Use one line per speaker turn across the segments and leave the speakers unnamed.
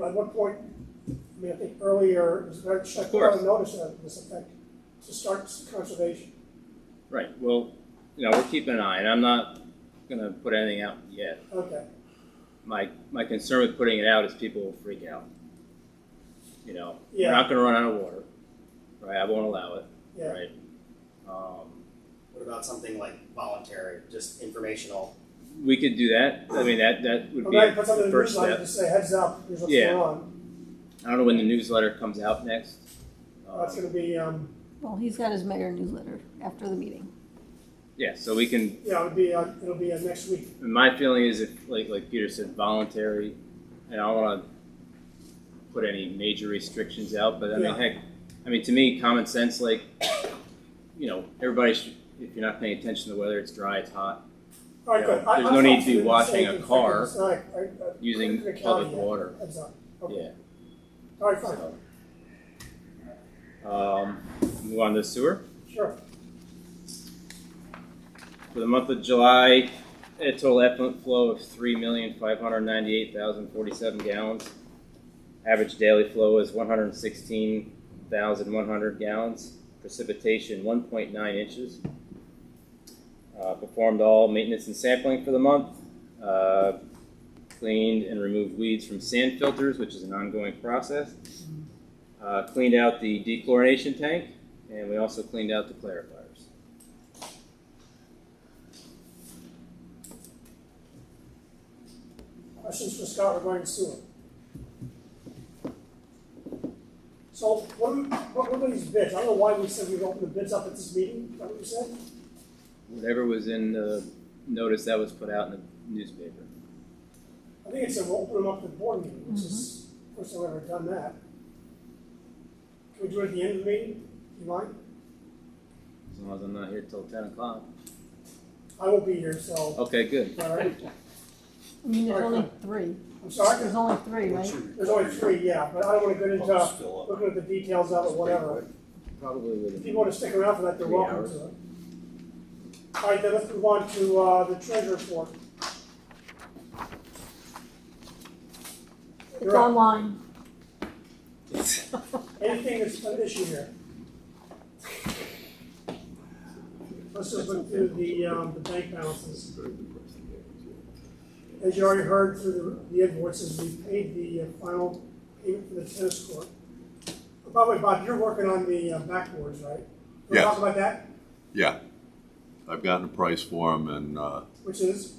at what point, I mean, I think earlier, it was very, should I
Of
put out
course.
a notice of this effect to start conservation?
Right, well, you know, we're keeping an eye, and I'm not gonna put anything out yet.
Okay,
My, my concern with putting it out is people will freak out. You know, we're
Yeah.
not gonna run out of water, right, I won't allow it,
yeah,
right? Um,
What about something like voluntary, just informational?
we could do that, I mean, that, that would
I'm
be
not put something
the
in the
first
newsletter to
step.
say heads up, here's what's
Yeah.
going on,
I don't know when the newsletter comes out next.
that's
Um,
gonna be, um,
Well, he's got his mayor newsletter after the meeting.
Yeah, so we can,
yeah, it'll be, uh, it'll be uh, next week,
my feeling is if, like, like Peter said, voluntary, and I don't wanna put any major restrictions out, but I mean,
Yeah.
heck, I mean, to me, common sense, like, you know, everybody should, if you're not paying attention to the weather, it's dry, it's hot,
alright,
Yeah,
good. I-
there's
I
no need
thought
to be
you were saying
washing a
it's
car
effective. All right, I- I-
using
I'm gonna count
public
that.
water.
Heads up, okay,
Yeah.
alright, fine,
so. Um, move on to sewer.
sure,
For the month of July, a total effluent flow of three million five hundred ninety-eight thousand forty-seven gallons. Average daily flow is one hundred sixteen thousand one hundred gallons. Precipitation one point nine inches. Uh, performed all maintenance and sampling for the month. Uh, cleaned and removed weeds from sand filters, which is an ongoing process. Uh, cleaned out the dechlorination tank, and we also cleaned out the clarifiers.
questions for Scott regarding sewer? So, what, do we- what were these bids, I don't know why we said we'd open the bids up at this meeting, is that what you said?
Whatever was in the notice that was put out in the newspaper.
I think it's a, we'll open them up to the board meeting, which is, first time I've ever done that. Can we do it at the end of the meeting, you mind?
As long as I'm not here till ten o'clock.
I won't be here, so,
Okay, good.
alright,
I mean, there's
Alright,
only three.
I'm sorry,
There's only three, right?
there's only three, yeah, but I don't wanna get into
Fill
looking at the details of it, whatever.
Probably
If
would
you wanna stick around for that, you're
Three
welcome
hours.
to it. Alright, then let's move on to, uh, the treasure report.
It's online.
Anything that's an issue here? Let's just look through the, um, the bank balances. As you already heard through the the invoices, we paid the uh, final payment for the tennis court. Oh, By the way, Bob, you're working on the uh, backboards, right? We're
Yes.
talking about that,
Yeah, I've gotten a price for them and uh,
which is,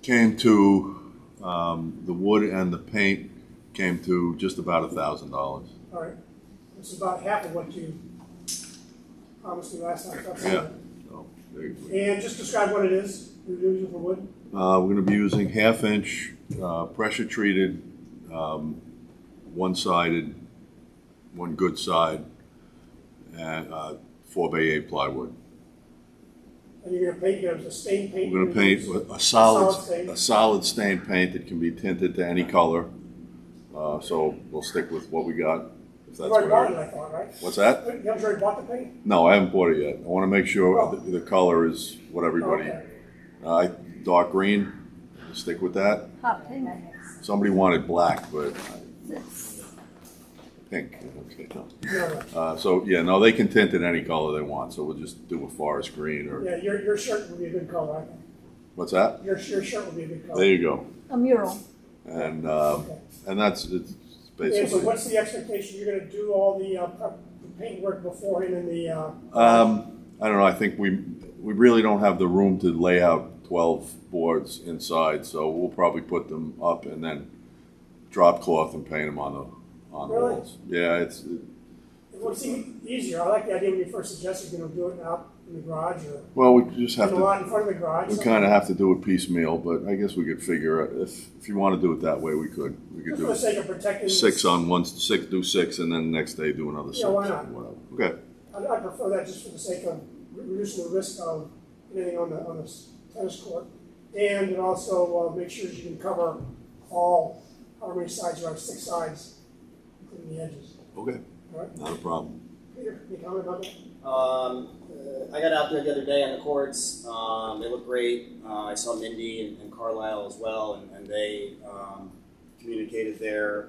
came to, um, the wood and the paint came to just about a thousand dollars.
all right, which is about half of what you promised me last time. that's
Yeah.
it.
So there you
And just describe what it is, you're using for wood,
go. Uh, We're going to be using half-inch, pressure-treated, um, one-sided, one good side, and uh, four by eight plywood.
and you're gonna paint, you're gonna stain paint.
We're gonna
you're
paint
use-
with a
Solid
solid,
stain.
a solid stain paint that can be tinted to any color. Uh, so we'll stick with what we got, if
You
that's
already bought
what
it,
it
I thought, right?
is. What's that?
You haven't already bought the paint?
No, I haven't bought it yet. I wanna make sure
Oh.
the, the color is what everybody,
Okay.
uh, dark green, stick with that.
Hot pink.
Somebody wanted black, but I-
That's-
pink, okay, no.
No, no.
Uh, so, yeah, no, they can tint it any color they want, so we'll just do a forest green or,
Yeah, your, your shirt would be a good color, I think.
what's that?
Your, your shirt would be a good color.
There you go.
A mural.
And, uh,
Okay.
and that's, it's
And so
basically.
what's the expectation? You're gonna do all the, uh, prep, the paintwork beforehand and the, uh,
Um, I don't know, I think we, we really don't have the room to lay out twelve boards inside, so we'll probably put them up and then drop cloth and paint them on the, on the
Really?
walls. Yeah, it's,
it would seem e-, easier. I like the idea when you first suggested, you know, do it out in the garage or
well, we just have
in a
to,
lot in front of the garage.
we
something.
kinda have to do it piecemeal, but I guess we could figure it, if, if you wanna do it that way, we could. We could
Just for
do
the sake of protecting.
six on one, six, do six, and then the next day do another six.
Yeah, why
or
not?
whatever. Okay.
I, I prefer that just for the sake of re- reducing the risk of anything on the, on the s- tennis court. And it also, uh, make sure you can cover all, how many sides you have, six sides, including the edges.
Okay,
All right,
not a problem.
Peter, any comment about that?
Um, uh, I got out there the other day on the courts. Um, they look great. Uh, I saw Mindy and, and Carlisle as well, and, and they um, communicated their